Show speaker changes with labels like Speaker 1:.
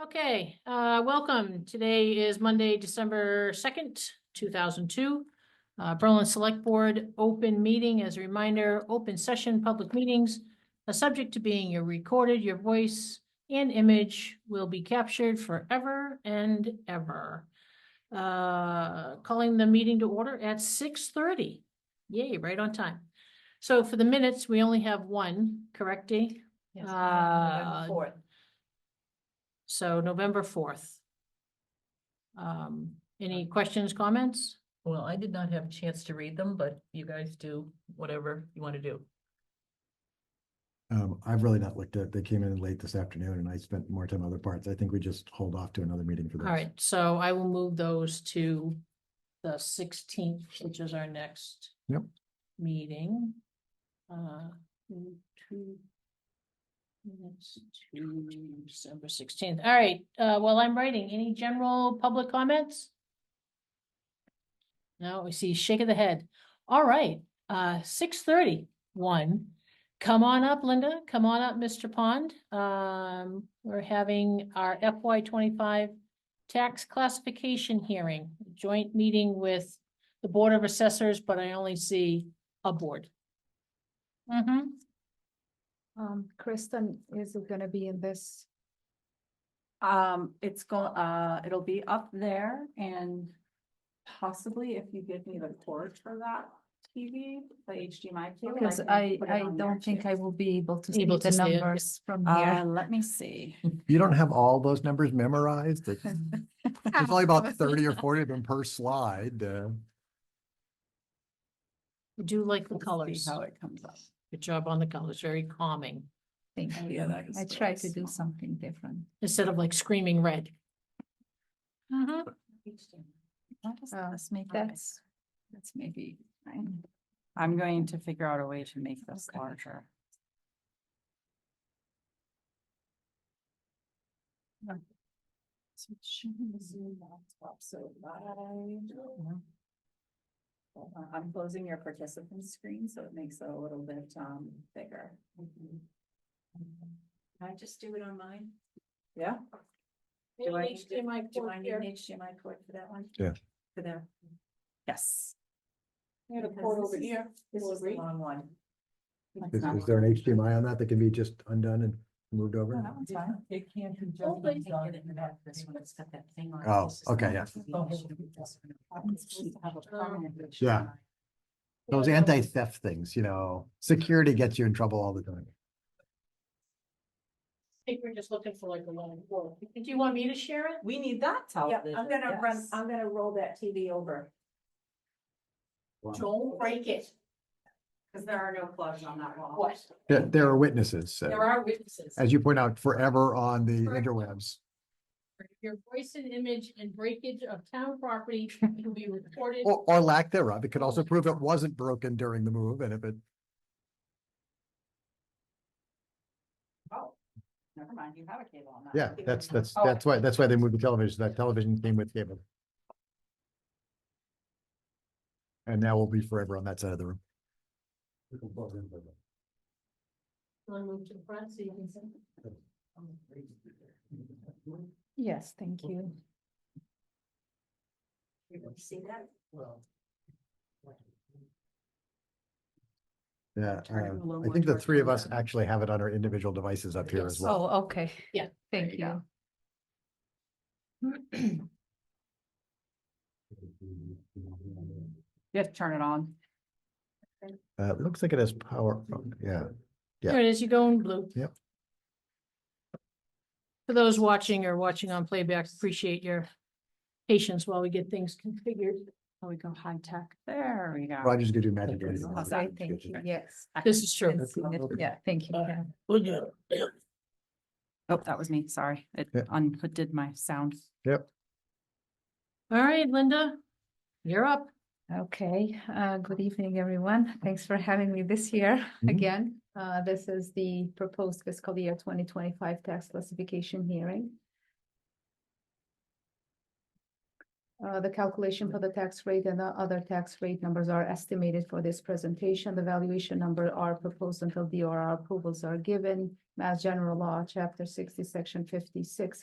Speaker 1: Okay, uh, welcome. Today is Monday, December second, two thousand two. Uh, Berlin Select Board, open meeting as a reminder, open session, public meetings are subject to being recorded. Your voice and image will be captured forever and ever. Uh, calling the meeting to order at six thirty. Yay, right on time. So for the minutes, we only have one, correct, Dee?
Speaker 2: Yes,
Speaker 1: Uh,
Speaker 2: November fourth.
Speaker 1: So November fourth. Um, any questions, comments?
Speaker 2: Well, I did not have a chance to read them, but you guys do whatever you want to do.
Speaker 3: Um, I've really not looked at, they came in late this afternoon and I spent more time on other parts. I think we just hold off to another meeting for this.
Speaker 1: All right, so I will move those to the sixteenth, which is our next.
Speaker 3: Yep.
Speaker 1: Meeting. Uh, two- two. Minutes to December sixteenth. All right, uh, while I'm writing, any general public comments? No, we see shake of the head. All right, uh, six thirty, one. Come on up, Linda. Come on up, Mr. Pond. Um, we're having our FY twenty-five tax classification hearing, joint meeting with the Board of Assessors, but I only see a board. Mm-hmm.
Speaker 4: Um, Kristen is gonna be in this,
Speaker 5: Um, it's go, uh, it'll be up there and possibly if you give me the cord for that TV, the HDMI cable.
Speaker 4: because
Speaker 5: can
Speaker 4: I,
Speaker 5: put it
Speaker 4: I
Speaker 5: on there
Speaker 4: don't think
Speaker 5: too.
Speaker 4: I will be able to see
Speaker 1: Able to
Speaker 4: the
Speaker 1: see it, yeah.
Speaker 4: numbers from
Speaker 5: Uh,
Speaker 4: here.
Speaker 5: let me see.
Speaker 3: You don't have all those numbers memorized? It's- There's only about thirty or forty of them per slide. uh,
Speaker 1: Do you like the
Speaker 5: Let's see
Speaker 1: colors.
Speaker 5: How it comes up.
Speaker 1: Good job on the colors, very calming,
Speaker 4: Thank
Speaker 5: Oh, yeah,
Speaker 4: you.
Speaker 5: that is
Speaker 4: I
Speaker 5: really
Speaker 4: try to do
Speaker 5: small.
Speaker 4: something different.
Speaker 1: instead of like screaming red. Mhm.
Speaker 5: Why does
Speaker 4: Uh,
Speaker 5: this make that?
Speaker 4: That's,
Speaker 5: That's maybe. fine. I'm going to figure out a way to make this
Speaker 4: Okay.
Speaker 5: larger. So it shouldn't zoom out, so wide. Hold on, I'm closing your participant screen, so it makes it a little bit, um, bigger. Can I just do it on mine? Yeah. Do I need to-
Speaker 1: HDMI
Speaker 5: Do
Speaker 1: cord
Speaker 5: I need
Speaker 1: here.
Speaker 5: an HDMI cord for that one?
Speaker 3: Yeah.
Speaker 5: For there. Yes.
Speaker 1: I got a
Speaker 5: because
Speaker 1: cord
Speaker 5: this
Speaker 1: over
Speaker 5: is-
Speaker 1: here.
Speaker 5: This
Speaker 1: Will
Speaker 5: is the
Speaker 1: agree.
Speaker 5: wrong one.
Speaker 3: Is, is there an HDMI on that that can be just undone and moved
Speaker 5: No,
Speaker 3: over?
Speaker 5: Oh, that one's fine.
Speaker 2: It can't be
Speaker 5: Oh, but you
Speaker 2: done
Speaker 5: can get it in
Speaker 2: without
Speaker 5: that- this one, it's got that thing on it.
Speaker 3: Oh,
Speaker 5: This is
Speaker 3: okay,
Speaker 5: not-
Speaker 3: yeah.
Speaker 5: this is not- I'm supposed to have a permanent HDMI.
Speaker 3: Yeah. Those anti-theft things, you know, security gets you in trouble all the time.
Speaker 1: I think we're just looking for like a long cord. Do you want me to share it?
Speaker 2: We need that television.
Speaker 5: run- I'm
Speaker 4: gonna roll that TV over.
Speaker 1: Don't break it.
Speaker 5: Cause there are no plugs on that wall.
Speaker 1: What?
Speaker 3: There, there are witnesses, uh,
Speaker 1: There are witnesses.
Speaker 3: as you point out, forever on the interwebs.
Speaker 1: Your voice and image and breakage of town property will be recorded.
Speaker 3: Or, or lack thereof. It could also prove it wasn't broken during the move and if it,
Speaker 5: Oh, never mind, you have a cable on that. Oh.
Speaker 3: yeah,
Speaker 5: one.
Speaker 3: that's, that's, that's why, that's why they moved the television. That television came with cable. And now we'll be forever on that side of the room.
Speaker 1: Wanna move to the front so you can see?
Speaker 4: Yes, thank you.
Speaker 5: You See that?
Speaker 3: Yeah,
Speaker 5: Turn it a
Speaker 3: um,
Speaker 5: little
Speaker 3: I
Speaker 5: more
Speaker 3: think the
Speaker 5: towards
Speaker 3: three
Speaker 5: the
Speaker 3: of us
Speaker 5: left.
Speaker 3: actually have it on our individual devices up here as
Speaker 1: Yes.
Speaker 3: well.
Speaker 4: Oh, okay.
Speaker 1: Yeah,
Speaker 4: Thank
Speaker 5: you go.
Speaker 4: you.
Speaker 5: You have to turn it on.
Speaker 3: Uh, it looks like it has power, on. yeah. Yeah.
Speaker 1: There it is, you go in blue.
Speaker 3: Yep.
Speaker 1: For those watching or watching on playback, appreciate your patience while we get things configured.
Speaker 5: Oh, we go high tech. There we go.
Speaker 3: Roger's gonna do magic.
Speaker 5: Okay.
Speaker 3: anything.
Speaker 5: How's
Speaker 4: I
Speaker 5: that?
Speaker 4: thank you, yes.
Speaker 1: This is true.
Speaker 4: I've seen it. Yeah, thank you.
Speaker 1: Uh,
Speaker 4: yeah.
Speaker 5: Oh, that was me, sorry. It
Speaker 3: Yeah.
Speaker 5: undid my sound.
Speaker 1: All right, Linda, you're up.
Speaker 4: Okay, uh, good evening, everyone. Thanks for having me this year
Speaker 3: Mhm.
Speaker 4: again. Uh, this is the proposed fiscal year twenty twenty-five tax classification hearing. Uh, the calculation for the tax rate and the other tax rate numbers are estimated for this presentation. The valuation number are proposed until DRR approvals are given. Mass General Law, Chapter sixty, Section fifty-six,